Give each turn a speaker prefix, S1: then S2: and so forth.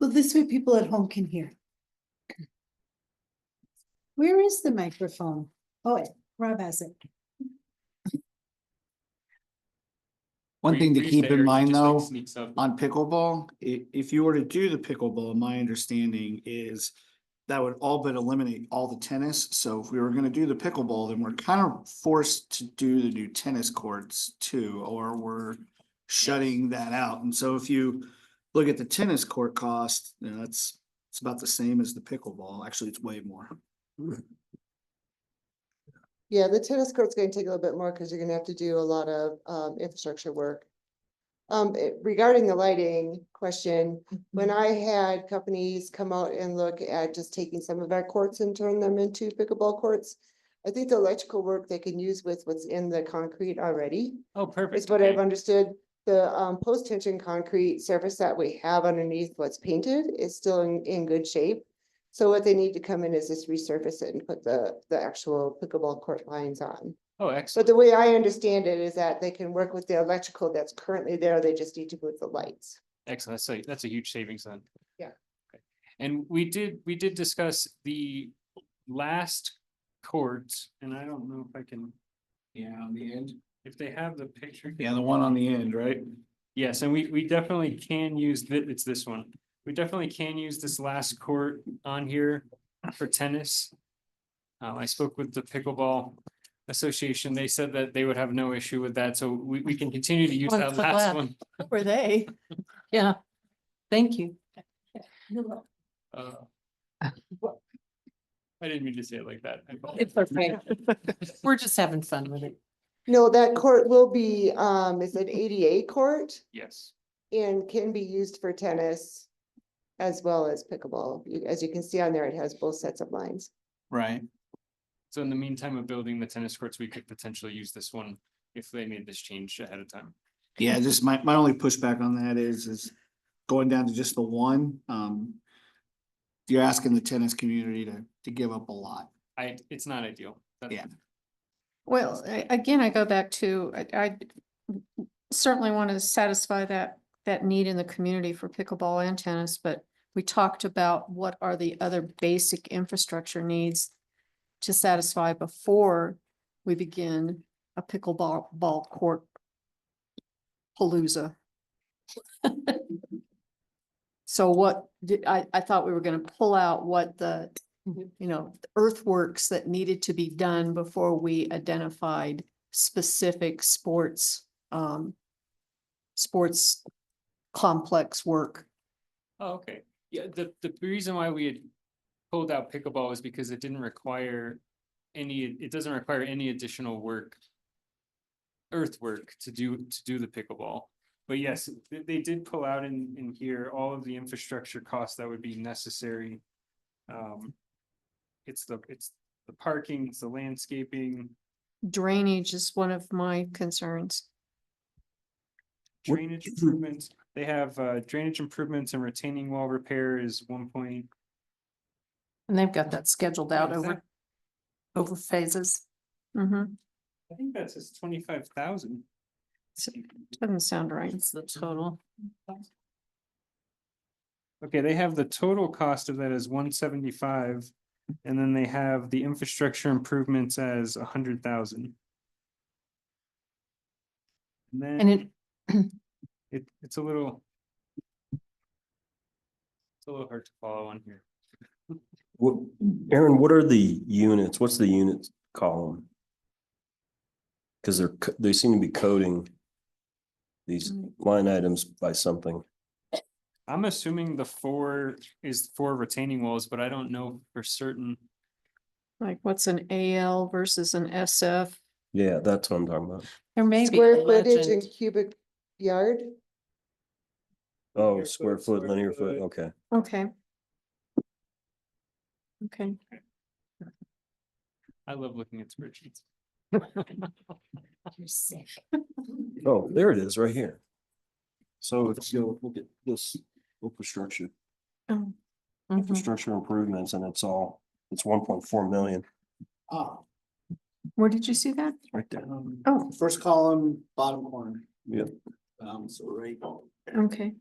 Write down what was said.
S1: Well, this way people at home can hear. Where is the microphone? Oh, Rob has it.
S2: One thing to
S3: Green
S2: keep
S3: Bay
S2: in mind
S3: just, like,
S2: though,
S3: sneaks up.
S2: on pickleball, i- if you were to do the pickleball, my understanding is that would all but eliminate all the tennis. So if we were gonna do the pickleball, then we're kind of forced to do the new tennis courts too, or we're shutting that out. And so if you look at the tennis court cost, you know, that's, it's about the same as the pickleball. Actually, it's way more.
S4: Yeah, the tennis court's gonna take a little bit more because you're gonna have to do a lot of um infrastructure work. Um, eh, regarding the lighting question, when I had companies come out and look at just taking some of our courts and turn them into pickleball courts. I think the electrical work they can use with what's in the concrete already
S3: Oh, perfect.
S4: is what I've
S3: okay.
S4: understood. The um post tension concrete surface that we have underneath what's painted is still in in good shape. So what they need to come in is just resurface it and put the the actual pickleball court lines on.
S3: Oh,
S4: But
S3: excellent.
S4: the way I understand it is that they can work with the electrical that's currently there. They just need to put the lights.
S3: Excellent. That's a, that's a huge savings then.
S4: Yeah.
S3: Okay. And we did, we did discuss the last chords, and I don't know if I can,
S2: Yeah, on the end.
S3: if they have the picture.
S2: Yeah, the one on the end, right?
S3: Yes, and we, we definitely can use, thi- it's this one. We definitely can use this last court on here for tennis. Uh, I spoke with the pickleball association. They said that they would have no issue with that, so we, we can continue to use
S5: One
S3: that
S5: foot
S3: last
S5: left.
S3: one.
S5: Were they? Yeah. Thank you.
S3: Uh, I didn't mean to say it like that. I apologize.
S5: It's okay. We're just having fun with it.
S4: No, that court will be um, it's an ADA court
S3: Yes,
S4: and can be used for tennis. As well as pickleball. You- As you can see on there, it has both sets of lines.
S2: Right.
S3: so in the meantime of building the tennis courts, we could potentially use this one if they made this change ahead of time.
S2: Yeah, just my, my only pushback on that is, is going down to just the one, um. You're asking the tennis community to, to give up a lot.
S3: I, it's not ideal. That's-
S2: Yeah.
S6: Well, a- again, I go back to, I- I certainly want to satisfy that, that need in the community for pickleball and tennis, but we talked about what are the other basic infrastructure needs to satisfy before we begin a pickleball ball court palooza. So what, did- I, I thought we were going to pull out what the, Mm-hmm. you know, earthworks that needed to be done before we identified specific sports, um, sports complex work.
S3: Oh, okay. Yeah, the, the reason why we had pulled out pickleball is because it didn't require any, it doesn't require any additional work. Earthwork to do, to do the pickleball. But yes, they, they did pull out in, in here all of the infrastructure costs that would be necessary. Um, it's the, it's the parking, it's the landscaping,
S6: Drainage is one of my concerns.
S2: What-
S3: drainage improvements. They have uh, drainage improvements and retaining wall repair is one point.
S5: And they've got that scheduled out
S3: Is that-
S5: over, over phases.
S6: hmm
S3: I think that says twenty-five thousand.
S6: doesn't sound right.
S5: It's the total.
S3: Okay, they have the total cost of that as one seventy-five, and then they have the infrastructure improvements as a hundred thousand. And
S5: And it,
S3: then it, it's a little. It's a little hard to follow on here.
S7: What, Aaron, what are the units? What's the unit column? Cause they're, co- they seem to be coding these
S6: Mm.
S7: line items by something.
S3: I'm assuming the four is four retaining walls, but I don't know for certain.
S6: Like what's an AL versus an SF?
S7: Yeah, that's what I'm talking about.
S5: there may be a
S4: Square footage and
S5: legend.
S4: cubic yard.
S7: Oh, square foot, linear foot, okay.
S6: Okay. Okay.
S3: I love looking at spreadsheets.
S7: Oh, there it is, right here. So if you go look at this infrastructure,
S6: Oh,
S5: Mhm.
S7: infrastructure improvements, and it's all, it's one point four million
S2: Ah,
S6: Where did you see that?
S7: right there.
S2: um,
S6: Oh,
S2: first column, bottom corner.
S7: Yeah.
S2: Um, so right.
S6: okay.